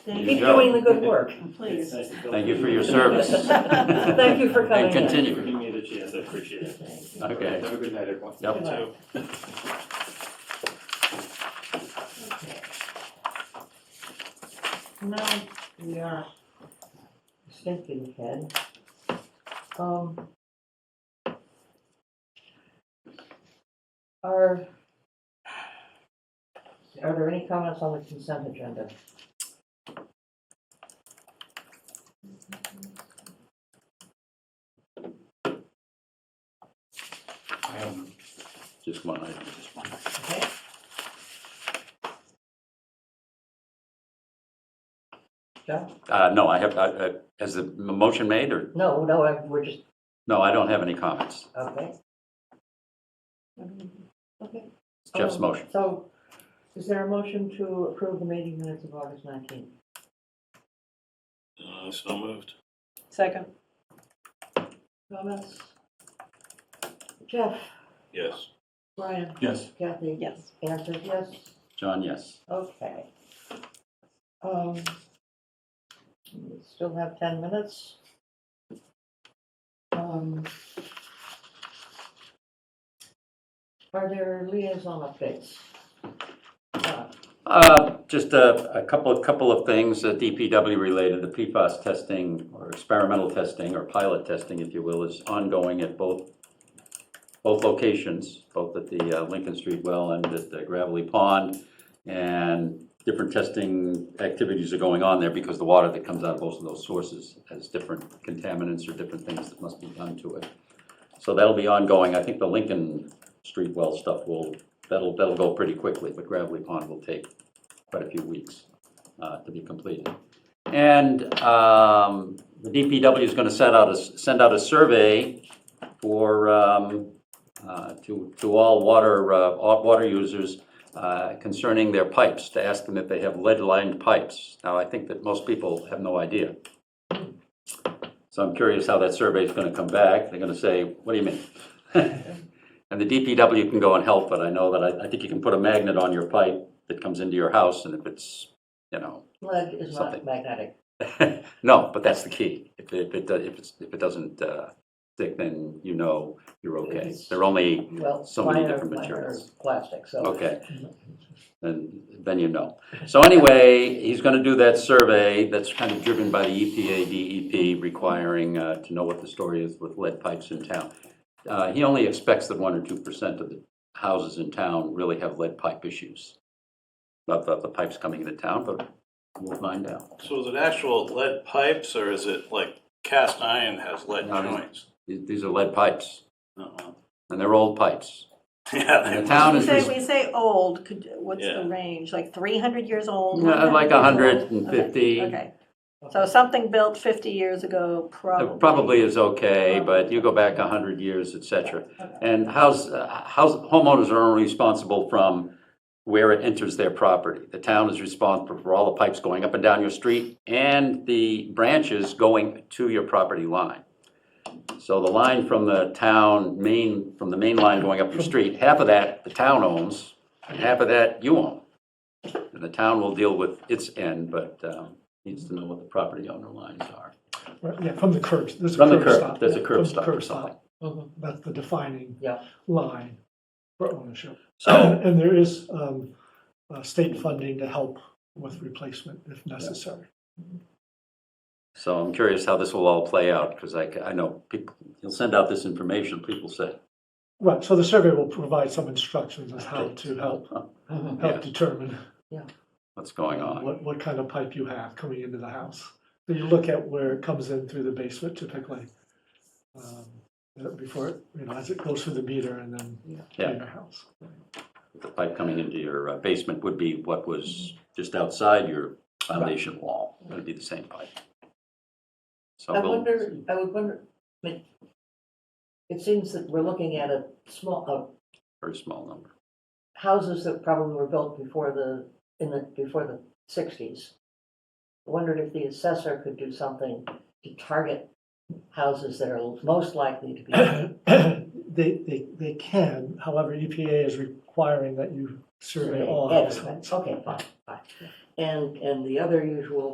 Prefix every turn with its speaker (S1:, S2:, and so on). S1: There
S2: Keep
S1: you go.
S2: doing the good work.
S1: Please.
S3: Thank you for your service.
S2: Thank you for coming
S3: And
S2: in.
S3: continue.
S1: Giving me the chance, I appreciate it.
S3: Okay.
S1: Have a good night, everyone.
S3: Yep.
S1: You too.
S2: Now, we are thinking ahead. Um, Are, are there any comments on the consent agenda?
S3: Just one item.
S2: Okay. John?
S3: Uh, no, I have, I- I- has the motion made or,
S2: No, no, I- we're just,
S3: no, I don't have any comments.
S2: okay.
S3: It's Jeff's
S2: Um,
S3: motion.
S2: So, is there a motion to approve the meeting minutes of August nineteenth?
S1: Uh, So moved.
S4: Second.
S2: Comments? Jeff,
S1: Yes.
S2: Brian,
S1: Yes.
S2: Kathy?
S4: Yes.
S2: Anne says yes,
S3: John, yes.
S2: okay. Um, we still have ten minutes. Um, Are there liaison updates? Uh,
S3: Uh, Just a a couple, a couple of things, uh, DPW related, the PFAS testing or experimental testing or pilot testing, if you will, is ongoing at both, both locations, both at the uh, Lincoln Street well and at the Gravelly Pond. And different testing activities are going on there because the water that comes out of both of those sources has different contaminants or different things that must be done to it. So that'll be ongoing. I think the Lincoln Street well stuff will, that'll, that'll go pretty quickly, but Gravelly Pond will take quite a few weeks uh, to be completed. And um, the DPW is going to set out, a s- send out a survey for, um, uh, to, to all water, uh, all water users uh, concerning their pipes, to ask them if they have lead-lined pipes. Now, I think that most people have no idea. So I'm curious how that survey is going to come back. They're going to say, what do you mean? And the DPW can go and help, but I know that I, I think you can put a magnet on your pipe that comes into your house, and if it's, you know,
S2: Lead is not
S3: Something.
S2: magnetic.
S3: no, but that's the key. If it, if it, do- if it's, if it doesn't uh, stick, then you know you're okay.
S2: It's-
S3: They're only,
S2: Well,
S3: So many
S2: minor-
S3: different
S2: minor
S3: materials.
S2: Plastic, so.
S3: okay. Then, then you know. So anyway, he's gonna do that survey that's kind of driven by the E EPA, DEP requiring uh, to know what the story is with lead pipes in town. Uh, He only expects that one or two percent of the houses in town really have lead pipe issues. Not that the pipe's coming into town, but we'll find out.
S5: So is it actual lead pipes or is it like cast iron has lead
S3: No, no.
S5: joints?
S3: These these are lead pipes,
S5: Uh-uh.
S3: and they're old pipes.
S5: Yeah,
S3: And
S5: they
S3: the town
S4: We
S3: is,
S4: say,
S3: res-
S4: we say old, could, what's the
S5: Yeah.
S4: range, like three hundred years old?
S3: uh,
S4: 100
S3: like
S4: years old?
S3: hundred and
S4: Okay,
S3: fifty,
S4: Okay, so something built fifty years ago, probably.
S3: probably is okay, but you go back hundred years, et cetera.
S4: Okay.
S3: And house, uh, house, homeowners are only responsible from where it enters their property. The town is responsible for all the pipes going up and down your street and the branches going to your property line. So the line from the town main, from the main line going up your street, half of that the town owns, and half of that you own. And the town will deal with its end, but um, needs to know what the property owner lines are.
S6: Right, Yeah, from the curb, there's a
S3: From the
S6: curb
S3: curb,
S6: stop.
S3: there's a
S6: yeah,
S3: curb
S6: from the
S3: stop or something.
S6: stop.
S2: Mhm.
S6: That's the defining
S2: Yeah.
S6: line for ownership.
S3: So
S6: And there is um, uh, state funding to help with replacement if necessary.
S3: So I'm curious how this will all play out, because I, ca- I know people, he'll send out this information, people say,
S6: Right, so the survey will provide some instructions as how to help,
S2: Mhm.
S3: Yeah.
S6: help determine
S3: what's going on?
S6: what, what kind of pipe you have coming into the house. So you look at where it comes in through the basement typically, um, before, it you know, as it goes through the meter and then
S3: Yeah.
S6: in your house.
S3: The pipe coming into your uh, basement would be what was just outside your foundation wall, it would be the same pipe. So
S2: I
S3: we'll-
S2: wonder, I would wonder, I mean, it seems that we're looking at a small, uh,
S3: Very small number.
S2: houses that probably were built before the, in the, before the sixties. Wondered if the assessor could do something to target houses that are most likely to be,
S6: They, they, they can, however, EPA is requiring that you survey all
S2: Yeah,
S6: households.
S2: Okay, fine, fine. And, and the other usual